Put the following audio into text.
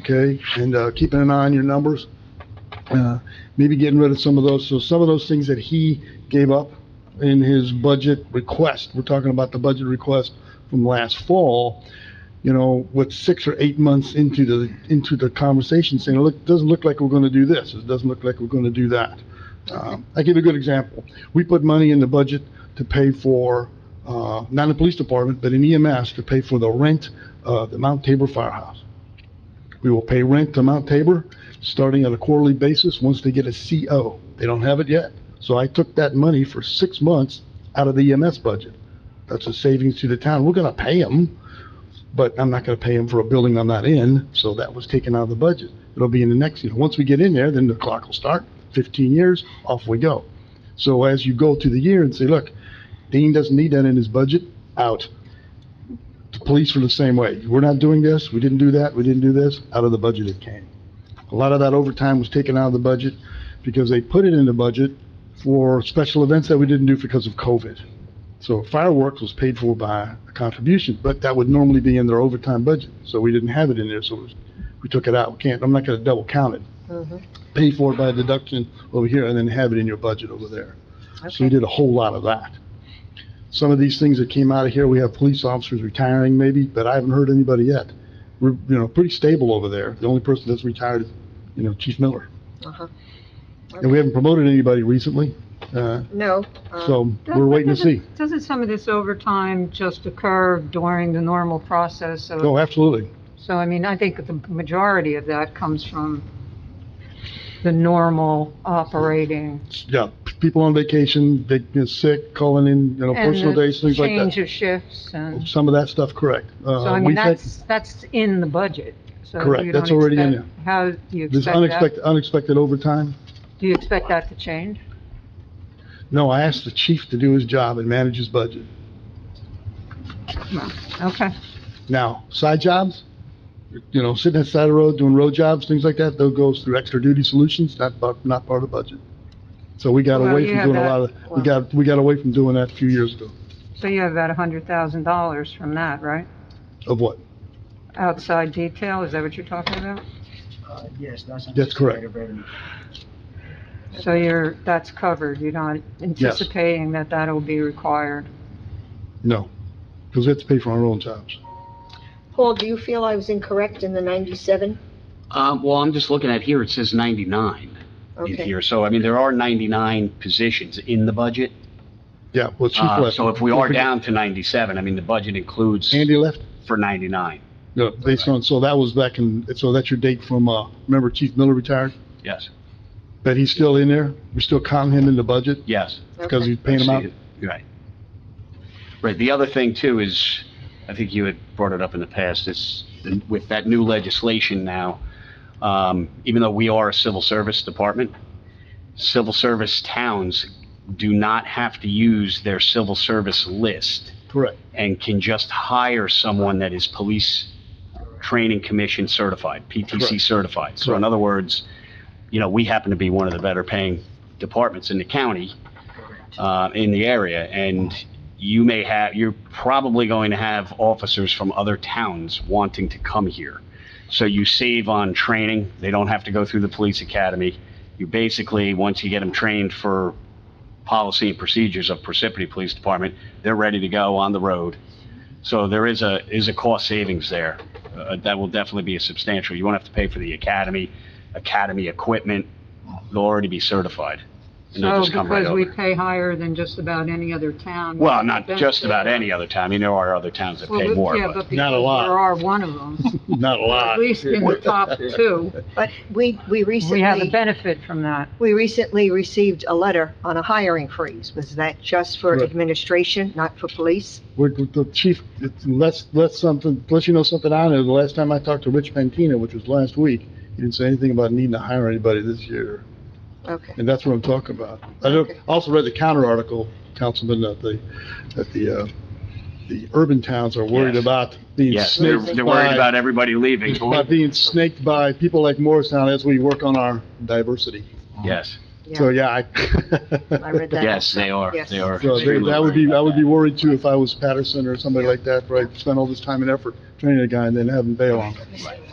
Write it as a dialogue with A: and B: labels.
A: okay? And uh, keeping an eye on your numbers, uh, maybe getting rid of some of those. So some of those things that he gave up in his budget request, we're talking about the budget request from last fall, you know, with six or eight months into the, into the conversation, saying, look, doesn't look like we're going to do this, it doesn't look like we're going to do that. Um, I give you a good example. We put money in the budget to pay for, uh, not in the police department, but in EMS, to pay for the rent of the Mount Tabor Firehouse. We will pay rent to Mount Tabor, starting on a quarterly basis, once they get a CO. They don't have it yet. So I took that money for six months out of the EMS budget. That's a savings to the town. We're gonna pay them, but I'm not gonna pay them for a building I'm not in, so that was taken out of the budget. It'll be in the next, year. once we get in there, then the clock will start, fifteen years, off we go. So as you go through the year and say, look, Dean doesn't need that in his budget, out. The police were the same way. We're not doing this, we didn't do that, we didn't do this, out of the budget it came. A lot of that overtime was taken out of the budget because they put it in the budget for special events that we didn't do because of COVID. So fireworks was paid for by a contribution, but that would normally be in their overtime budget. So we didn't have it in there, so it was- we took it out. We can't, I'm not gonna double count it.
B: Mhm.
A: Pay for it by deduction over here and then have it in your budget over there. So we did a whole lot of that. Some of these things that came out of here, we have police officers retiring maybe, but I haven't heard anybody yet. We're, you know, pretty stable over there. The only person that's retired is, you know, Chief Miller.
B: Uh-huh.
A: And we haven't promoted anybody recently, uh,
B: No. uh,
A: so we're waiting to see.
C: Doesn't some of this overtime just occur during the normal process of,
A: Oh, absolutely.
C: so I mean, I think the majority of that comes from the normal operating.
A: Yeah, p- people on vacation, they get sick, calling in, you know,
C: and
A: personal
C: the
A: days, things like
C: Change
A: that.
C: of shifts and,
A: Some of that stuff, correct. Uh,
C: so I mean,
A: we've had-
C: that's, that's in the budget. So
A: Correct,
C: you
A: that's
C: don't
A: already in
C: expect- How do you
A: This
C: expect that?
A: unexpected, unexpected overtime.
C: Do you expect that to change?
A: No, I asked the chief to do his job and manage his budget.
C: Okay.
A: Now, side jobs, you know, sitting at the side of the road, doing road jobs, things like that, those goes through extra duty solutions, not, bu- not part of the budget. So we got
C: Well,
A: away
C: you
A: from
C: have
A: doing a
C: that-
A: lot of, we got, we got away from doing that a few years ago.
C: So you have about a hundred thousand dollars from that, right?
A: Of what?
C: Outside detail, is that what you're talking about?
D: Uh, Yes, that's.
A: That's correct.
D: anticipated revenue.
C: So you're, that's covered, you're not anticipating that that'll be required?
A: No, because we have to pay for our own jobs.
B: Paul, do you feel I was incorrect in the 97?
E: Um, well, I'm just looking at here, it says 99 in
B: Okay.
E: here, so I mean, there are 99 positions in the budget.
A: Yeah, well, chief
E: Uh,
A: left.
E: So if we are
A: Don't forget-
E: down to 97, I mean, the budget includes
A: Andy left?
E: for 99,
A: No, based on, so that was back in, so that's your date from, uh, remember Chief Miller retired?
E: yes,
A: But he's still in there? We still count him in the budget
E: yes.
A: because
B: Okay.
A: he's paying him out?
E: Right. Right, the other thing too is, I think you had brought it up in the past, is with that new legislation now, um, even though we are a civil service department, civil service towns do not have to use their civil service list
A: Correct.
E: and can just hire someone that is police training commission certified, PTC
A: Correct.
E: certified. So in
A: Correct.
E: other words, you know, we happen to be one of the better paying departments in the county, uh, in the area, and you may have, you're probably going to have officers from other towns wanting to come here. So you save on training, they don't have to go through the police academy. You basically, once you get them trained for policy and procedures of Parsippany Police Department, they're ready to go on the road. So there is a, is a cost savings there. Uh, That will definitely be a substantial, you won't have to pay for the academy, academy equipment, they'll already be certified. and they'll
C: So
E: just come right
C: because we
E: over.
C: pay higher than just about any other town?
E: Well, not just about any other town, I mean, there are other towns that
C: Well,
E: pay
C: we-
E: more,
C: yeah,
E: but,
C: because
A: Not a lot.
C: There are one of them,
A: Not a
C: at least in the top two.
B: But we, we
C: We have a
B: recently,
C: benefit from that.
B: we recently received a letter on a hiring freeze. Was that just for
A: Right.
B: administration, not for police?
A: We're, the chief, it's- unless, unless something, unless you know something I know, the last time I talked to Rich Pantina, which was last week, he didn't say anything about needing to hire anybody this year.
B: Okay.
A: And that's what I'm talking about. I don't-
B: Okay.
A: also read the counter article, Councilman, that the, that the, uh, the urban towns are worried
E: Yes.
A: about being
E: yes, they're
A: snaked
E: they're worried
A: by,
E: about everybody leaving.
A: about being snaked by people like Morristown as we work on our diversity.
E: Yes,
A: So, yeah, I.
B: I read that.
E: yes, they are,
B: Yes.
E: they are.
A: So they-
E: extremely
A: that would
E: worried
A: be,
E: about
A: I would
E: that.
A: be worried too if I was Patterson or somebody like that, where I spent all this time and effort training a guy and then having bail on him.
E: Right.